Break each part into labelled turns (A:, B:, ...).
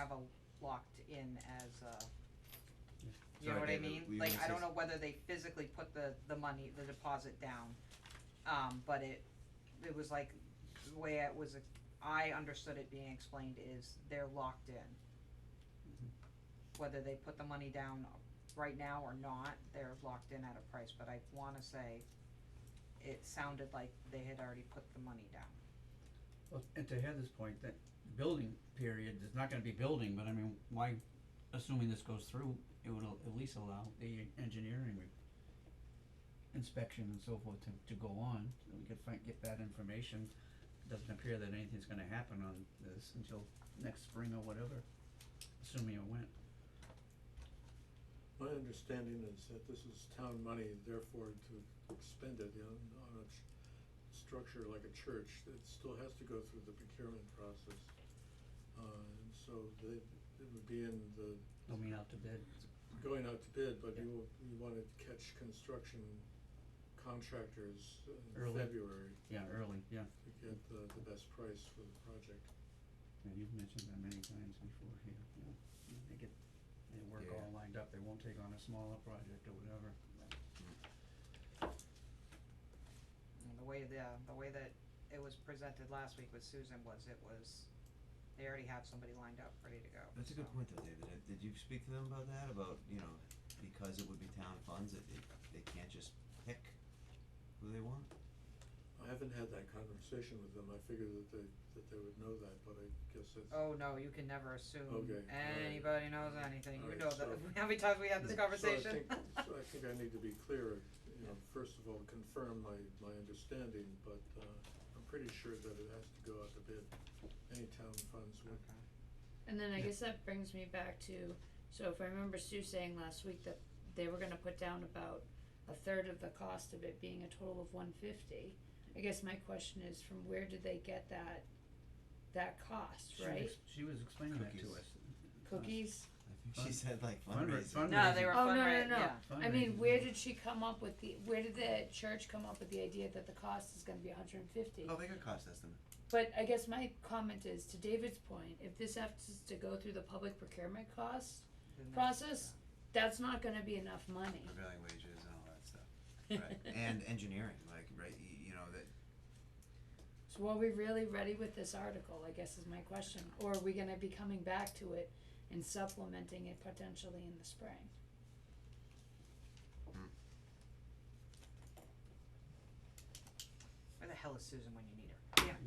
A: have a locked in as a, you
B: Sorry,
A: know what I
B: David,
A: mean?
B: were you
A: Like,
B: gonna
A: I
B: say
A: don't
B: s-
A: know whether they physically put the, the money, the deposit down. Um, but it, it was like, the way it was, ex- I understood it being explained is they're locked in.
B: Mm-hmm.
A: Whether they put the money down right now or not, they're locked in at a price, but I wanna say it sounded like they had already put the money down.
B: Well, and to Heather's point, that building period, there's not gonna be building, but I mean, why, assuming this goes through, it would al- at least allow the engineering re- inspection and so forth to, to go on, so we could find, get that information. Doesn't appear that anything's gonna happen on this until next spring or whatever, assuming it went.
C: My understanding is that this is town money, therefore to expend it on, on a ch- structure like a church, it still has to go through the procurement process. Uh, and so they, it would be in the,
B: Going out to bid,
C: going out to bid, but you, you wanna catch construction contractors in
B: Early.
C: February
B: yeah, early, yeah,
C: to get the, the best price for the project.
B: yeah, you've mentioned that many times before here, yeah, Yeah, they get, they work
D: Yeah.
B: all lined up, they won't take on a smaller project or whatever,
A: And the way the, the way that it was presented last week with Susan was it was, they already have somebody lined up, ready to go,
D: That's a
A: so.
D: good point though, David. Uh, Did you speak to them about that? About, you know, because it would be town funds, that they, they can't just pick who they want?
C: I haven't had that conversation with them, I figured that they, that they would know that, but I guess it's.
A: Oh, no, you can never assume
C: Okay, alright.
A: anybody knows anything, you
C: Alright,
A: know that,
C: so-
A: how many times we had this
C: So I
A: conversation?
C: think- So I think I need to be clear, you know, first of all, confirm my, my understanding, but, uh, I'm pretty sure that it has to go out to bid, any town funds would.
A: Okay.
E: And then I
B: Yeah.
E: guess that brings me back to, so if I remember Sue saying last week that they were gonna put down about a third of the cost of it being a total of one fifty. I guess my question is from where did they get that, that cost,
B: She was
E: right?
B: ex- She was explaining that to
D: Cookies.
B: us.
E: Cookies?
D: I think
B: Fund-
D: she said like
B: fundra-
D: fundraising.
B: fundraising.
A: No, they were
E: Oh, no, no,
A: fundraising,
E: no.
A: yeah,
E: I mean, where
B: Fundraising.
E: did she come up with the, where did the church come up with the idea that the cost is gonna be hundred and fifty?
D: Oh, they got cost estimate.
E: But I guess my comment is, to David's point, if this has to go through the public procurement cost,
A: Then that's-
E: process, that's not gonna be enough money.
D: Prevailing wages and all that stuff. Right. And engineering, like, right, y- you know, that,
E: So are we really ready with this article, I guess is my question, or are we gonna be coming back to it and supplementing it potentially in the spring?
A: Where the hell is Susan when you need her? Yeah.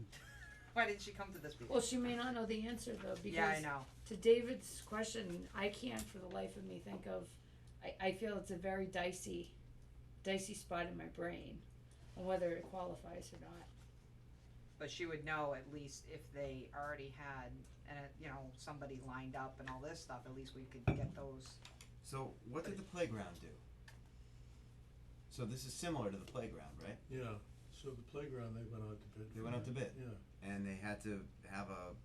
A: Why didn't she come to this meeting?
E: Well, she may not know the answer though,
A: Yeah, I
E: because
A: know,
E: to David's question, I can't for the life of me think of, I, I feel it's a very dicey, dicey spot in my brain on whether it qualifies or not.
A: but she would know at least if they already had, and, uh, you know, somebody lined up and all this stuff, at least we could get those,
D: so what did the playground do? So this is similar to the playground, right?
C: Yeah, so the playground, they went out to bid.
D: They
C: for
D: went out to bid.
C: that. Yeah,
D: And they had to have a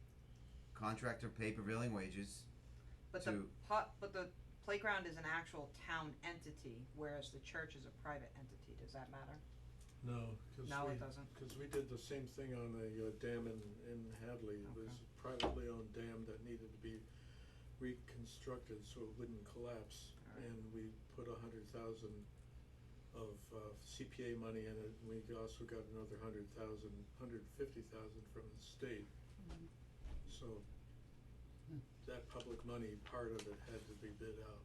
D: contractor pay prevailing wages
A: but the
D: to,
A: pu- but the playground is an actual town entity, whereas the church is a private entity, does that matter?
C: no, cause
A: No, it
C: we,
A: doesn't,
C: cause we did the same thing on the uh, dam in, in Hadley, it was a privately owned dam that needed to be reconstructed so it wouldn't collapse.
A: Alright.
C: And we put a hundred thousand of uh, CPA money in it, and we also got another hundred thousand, hundred fifty thousand from the state.
E: Mhm.
C: So
B: Hmm.
C: that public money, part of it had to be bid out.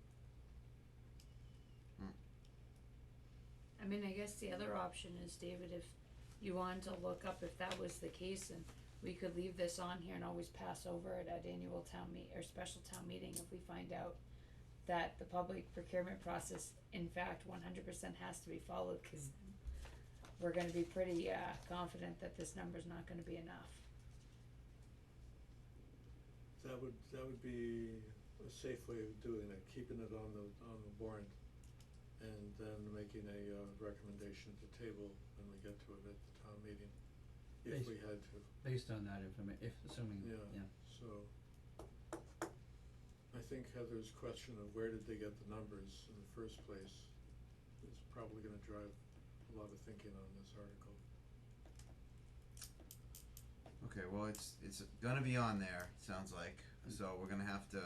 E: I mean, I guess the other option is, David, if you wanted to look up if that was the case and we could leave this on here and always pass over it at annual town meet, or special town meeting if we find out that the public procurement process, in fact, one hundred percent has to be followed, cause we're gonna be pretty, uh, confident that this number's not gonna be enough.
C: That would, that would be a safe way of doing it, keeping it on the, on the warrant and then making a uh, recommendation to table when we get to it at the town meeting, if
B: Basi-
C: we had to,
B: Based on that information, if assuming,
C: Yeah.
B: yeah,
C: so. I think Heather's question of where did they get the numbers in the first place is probably gonna drive a lot of thinking on this article.
D: okay, well, it's, it's gonna be on there, sounds like, so we're gonna have to